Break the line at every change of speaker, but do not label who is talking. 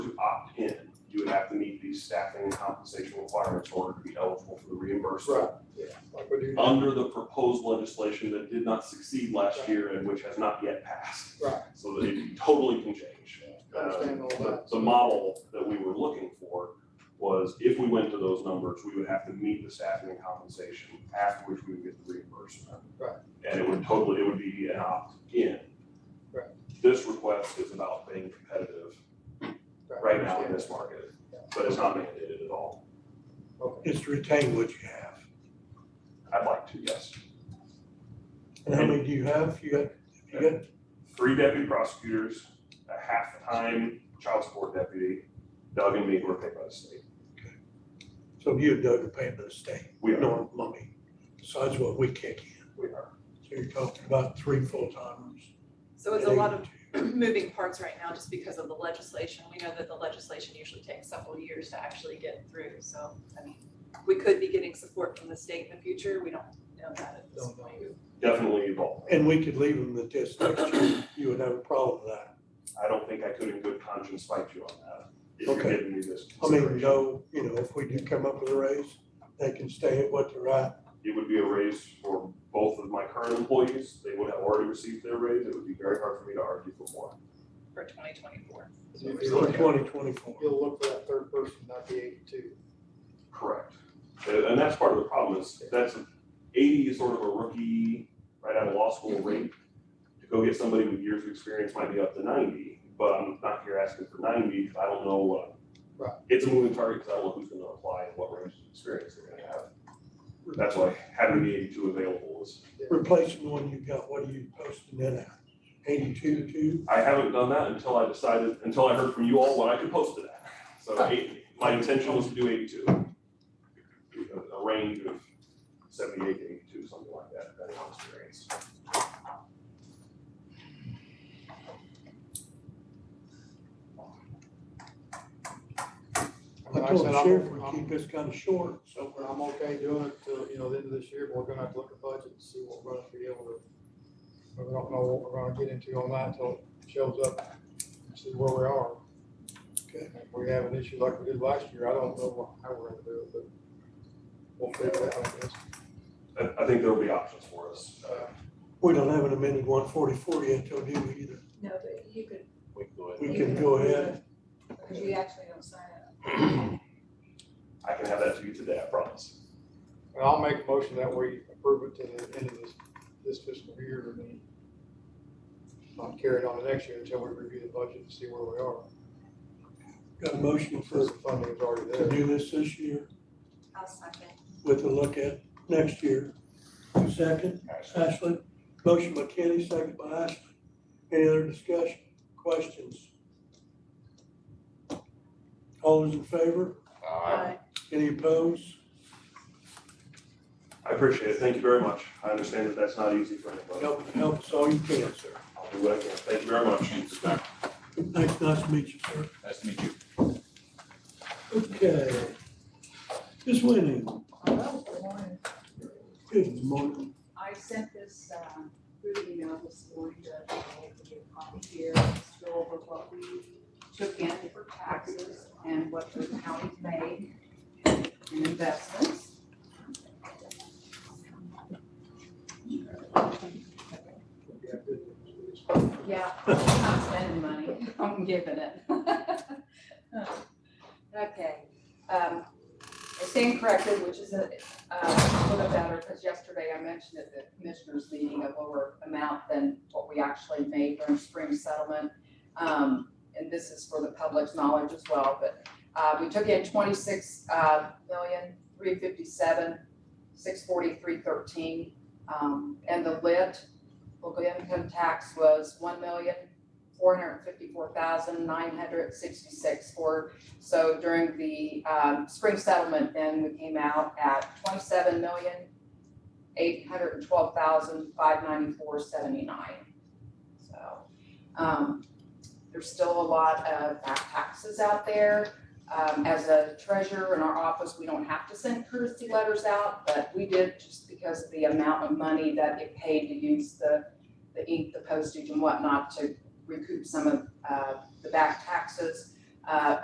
have to meet these staffing and compensation requirements in order to be eligible for the reimbursement.
Right, yeah, like we do now.
Under the proposed legislation that did not succeed last year and which has not yet passed.
Right.
So that it totally can change.
I understand all
Um, the-
that.
The model that we were looking for was if we went to those numbers, we would have to meet the staffing and compensation, after which we would get the reimbursement.
Right.
And it would totally, it would be an opt-in.
Right.
This request is about being competitive right now in
understand.
this market, but it's not mandated at all.
Okay.
is to retain what you have.
I'd like to, yes.
And how many do you have? You got, you got,
Three deputy prosecutors, a half-time child support deputy, Doug and me were paid by the state.
so you and Doug are paying to the state.
We are.
No money, besides what we kick in.
We are.
So you're talking about three full-timers.
So it's a lot of moving parts right now just because of the legislation. We know that the legislation usually takes several years to actually get through, so, I mean, we could be getting support from the state in the future. We don't know that at this
Don't know.
point.
Definitely involved.
And we could leave them at this next year. You would have a problem with that.
I don't think I could in good conscience fight you on that. If
Okay.
you're giving me this
I mean,
consideration,
no, you know, if we do come up with a raise, they can stay at what they're at.
it would be a raise for both of my current employees. They would have already received their raise. It would be very hard for me to argue for more.
For twenty twenty-four.
So if you
For
look-
twenty twenty-four.
You'll look for that third person, not the eighty-two.
Correct. And and that's part of the problem is that's eighty is sort of a rookie, right out of law school rate. To go get somebody with years of experience might be up to ninety, but I'm not here asking for ninety, 'cause I don't know what.
Right.
It's a moving target because I don't know who's gonna apply and what range of experience they're gonna have. That's why having the eighty-two available is,
Replacing the one you got, what are you posting it at? Eighty-two, two?
I haven't done that until I decided, until I heard from you all what I could post it at. So eight, my intention was to do eighty-two. A- A range of seventy-eight to eighty-two, something like that, depending on experience.
I
I
mean, like I
told
said,
the
I'm-
sheriff we
I'm-
keep this kind of short, so
But I'm okay doing it till, you know, the end of this year, but we're gonna have to look at budget and see what we're gonna be able to. but We don't know what we're gonna get into on that until it shows up and see where we are.
Okay.
If we have an issue like we did last year, I don't know what- how we're gonna do it, but we'll figure it out, I guess.
I, I think there'll be options for us. Uh,
we don't have an amended one forty-four yet, do we either?
No, but you could,
we can go ahead.
We can go ahead.
because you actually don't sign it.
I can have that to you today, I promise.
And I'll make a motion that we approve it to the end of this, this fiscal year and then not carry it on to next year until we review the budget and see where we are.
Got a motion for,
Since the funding is already
to
there.
do this this year
I'll second.
with a look at next year. Second, Ashley, motion by Kenny, second by Ashley. Any other discussion, questions? All those in favor? Any opposed?
I appreciate it. Thank you very much. I understand that that's not easy for anybody.
Help, help us all you can, sir.
I'll do what I can. Thank you very much.
Thanks, nice to meet you, sir.
Nice to meet you.
Okay. Ms. Winnie,
um,
Hello, good morning.
good morning.
I sent this um, through the email this morning to give a copy here, just go over what we took in for taxes and what the county's made in investments.
Yeah, good.
Yeah, I'm not spending money, I'm giving it. Okay, um, it's incorrected, which is a, uh, a little better, because yesterday I mentioned at the commissioners meeting a lower amount than what we actually made during spring settlement. Um, and this is for the public's knowledge as well, but, uh, we took in twenty-six, uh, million, three fifty-seven, six forty-three thirteen. Um, and the lit, local income tax was one million, four hundred fifty-four thousand, nine hundred sixty-six for, so during the, um, spring settlement, then we came out at twenty-seven million, eight hundred twelve thousand, five ninety-four, seventy-nine. So, um, there's still a lot of back taxes out there. Um, as a treasurer in our office, we don't have to send courtesy letters out, but we did just because of the amount of money that it paid to use the the ink, the postage and whatnot to recoup some of uh, the back taxes. Uh,